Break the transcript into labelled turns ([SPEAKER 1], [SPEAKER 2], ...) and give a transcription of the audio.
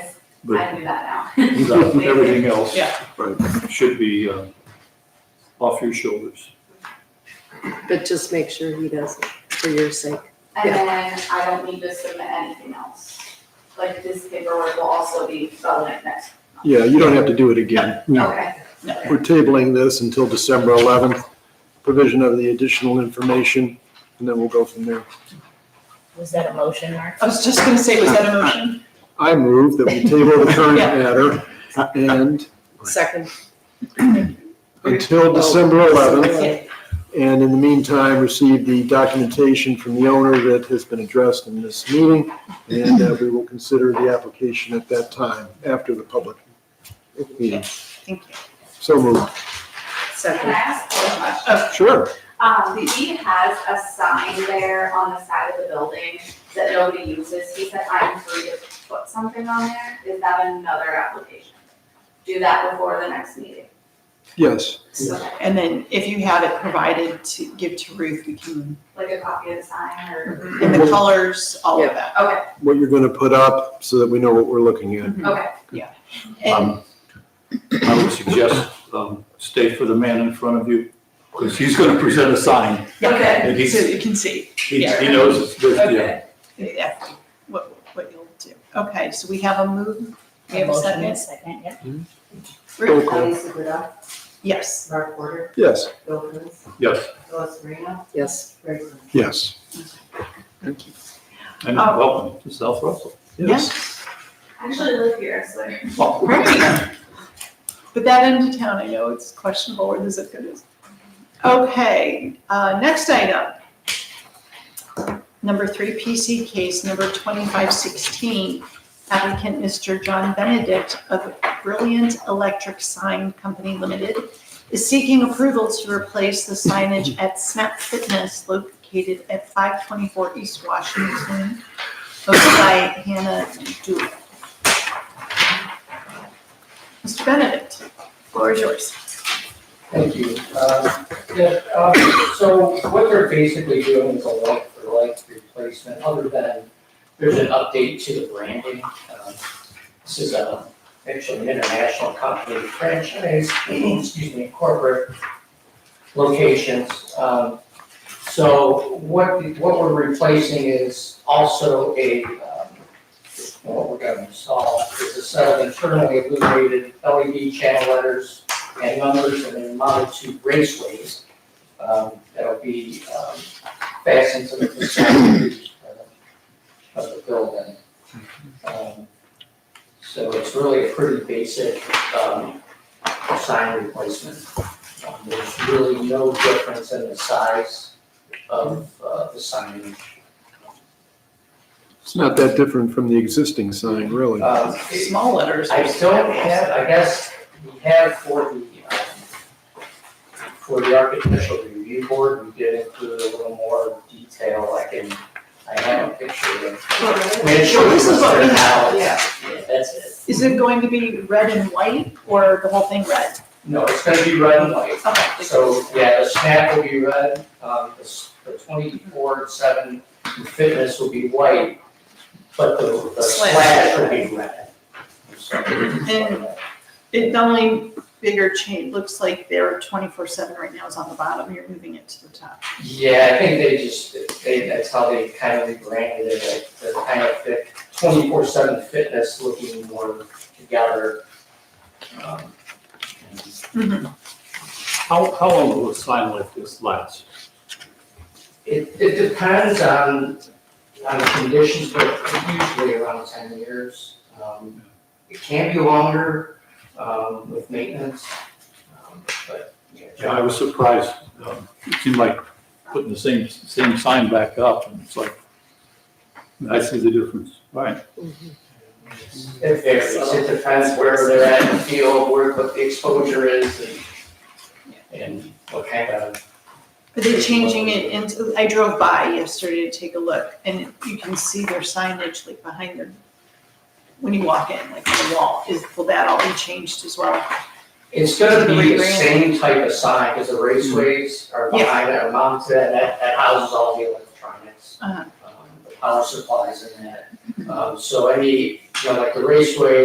[SPEAKER 1] I
[SPEAKER 2] But
[SPEAKER 1] do that now.
[SPEAKER 2] no, everything else
[SPEAKER 3] Yeah.
[SPEAKER 2] right, should be uh, off your shoulders.
[SPEAKER 4] But just make sure he does it for your sake.
[SPEAKER 1] And then I don't need to submit anything else. Like this paperwork will also be relevant next.
[SPEAKER 5] Yeah, you don't have to do it again. We-
[SPEAKER 1] Okay,
[SPEAKER 5] We're tabling this until December 11th, provision of the additional information, and then we'll go from there.
[SPEAKER 6] Was that a motion, Mark?
[SPEAKER 3] I was just gonna say, was that a motion?
[SPEAKER 5] I move that we table the current
[SPEAKER 3] Yeah.
[SPEAKER 5] matter and
[SPEAKER 4] Second,
[SPEAKER 5] until December 11th,
[SPEAKER 3] Okay.
[SPEAKER 5] and in the meantime, receive the documentation from the owner that has been addressed in this meeting, and uh, we will consider the application at that time, after the public meeting.
[SPEAKER 3] Thank you.
[SPEAKER 5] So moved.
[SPEAKER 1] can I
[SPEAKER 4] second.
[SPEAKER 1] ask one question?
[SPEAKER 5] Sure.
[SPEAKER 1] Um, he has a sign there on the side of the building that nobody uses. He said, I'm free to put something on there. Is that another application? Do that before the next meeting.
[SPEAKER 5] Yes.
[SPEAKER 1] Okay.
[SPEAKER 3] And then if you have it provided to give to Ruth, we can,
[SPEAKER 1] Like a copy of the sign or,
[SPEAKER 5] Mm-hmm.
[SPEAKER 3] and the colors, all of that.
[SPEAKER 1] okay,
[SPEAKER 5] What you're going to put up so that we know what we're looking at.
[SPEAKER 1] okay.
[SPEAKER 3] And
[SPEAKER 2] Um, I would suggest um, stay for the man in front of you because he's going to present a sign.
[SPEAKER 3] yeah,
[SPEAKER 2] And he's-
[SPEAKER 3] so you can see.
[SPEAKER 2] He
[SPEAKER 3] Yeah.
[SPEAKER 2] he knows it's good, yeah.
[SPEAKER 1] Okay.
[SPEAKER 3] Yeah, what, what you'll do. Okay, so we have a move, we have a
[SPEAKER 6] motion and
[SPEAKER 3] second.
[SPEAKER 6] Second, yeah.
[SPEAKER 5] Roll
[SPEAKER 3] Ruth?
[SPEAKER 5] call.
[SPEAKER 3] Yes,
[SPEAKER 7] Mark Porter,
[SPEAKER 5] Yes.
[SPEAKER 7] Bill Coons,
[SPEAKER 2] Yes,
[SPEAKER 7] Phyllis Marino,
[SPEAKER 4] Yes,
[SPEAKER 7] Greg Brooks.
[SPEAKER 5] Yes.
[SPEAKER 2] and
[SPEAKER 3] Oh.
[SPEAKER 2] welcome to South Russell.
[SPEAKER 3] yes.
[SPEAKER 1] I Actually live here, so.
[SPEAKER 3] Great. But that end of town, I know it's questionable where the zip code is. Okay, uh, next item. Number three, PC case number 2516, applicant Mr. John Benedict of Brilliant Electric Sign Company Limited is seeking approval to replace the signage at Snap Fitness located at 524 East Washington, over by Hannah Dooley. Mr. Benedict, floor is yours.
[SPEAKER 8] Thank you. Uh, yeah, uh, So what they're basically doing is a like for like replacement, other than there's an update to the branding. Um, This is a, actually an international company franchise, excuse me, corporate locations. Um, So what, what we're replacing is also a, um, what we're gonna install is a set of internally illuminated LED channel letters and numbers and then mounted to raceways. um, That'll be um, fastened to the facade of the- of the building. Um, So it's really a pretty basic um, sign replacement. Um, There's really no difference in the size of uh, the sign.
[SPEAKER 5] It's not that different from the existing sign, really.
[SPEAKER 8] Um, it-
[SPEAKER 3] Small letters.
[SPEAKER 8] I still have, I guess, we have for the, um, for the architectural review board, we did include a little more detail, like in, I have a picture of. I mean, it
[SPEAKER 3] Sure,
[SPEAKER 8] shows
[SPEAKER 3] this is what we
[SPEAKER 8] what's there
[SPEAKER 3] have,
[SPEAKER 8] now.
[SPEAKER 3] yeah.
[SPEAKER 8] Yeah, that's it.
[SPEAKER 3] Is it going to be red and white or the whole thing red?
[SPEAKER 8] No, it's gonna be red and white,
[SPEAKER 3] Okay.
[SPEAKER 8] so, yeah, the snap will be red, um, the, s- the twenty-four, seven fitness will be white, but the, the
[SPEAKER 3] Slash.
[SPEAKER 8] slash will be red. So-
[SPEAKER 3] And- It, the only bigger change, looks like their twenty-four seven right now is on the bottom, you're moving it to the top.
[SPEAKER 8] Yeah, I think they just, they, that's how they kind of rebranded it, like, the kind of fit, twenty-four seven fitness looking more together. Um,
[SPEAKER 2] How, how long will a sign like this last?
[SPEAKER 8] It, it depends on, on the conditions, but usually around ten years. Um, It can be longer, um, with maintenance, um, but, yeah.
[SPEAKER 2] Yeah, I was surprised. Um, It seemed like putting the same, same sign back up and it's like, I see the difference. Right.
[SPEAKER 8] It varies, it depends where they're at in the field, where, what the exposure is and, and what kind of.
[SPEAKER 3] But they're changing it into, I drove by yesterday to take a look and you can see their signage like behind them. When you walk in, like on the wall, is, will that all be changed as well?
[SPEAKER 8] It's gonna be the
[SPEAKER 3] Rebrand.
[SPEAKER 8] same type of sign, because the raceways are
[SPEAKER 3] Yeah.
[SPEAKER 8] behind that, mounted, that, that houses all the electronics.
[SPEAKER 3] Uh-huh.
[SPEAKER 8] um, The power supplies and that, um, so any, you know, like the raceway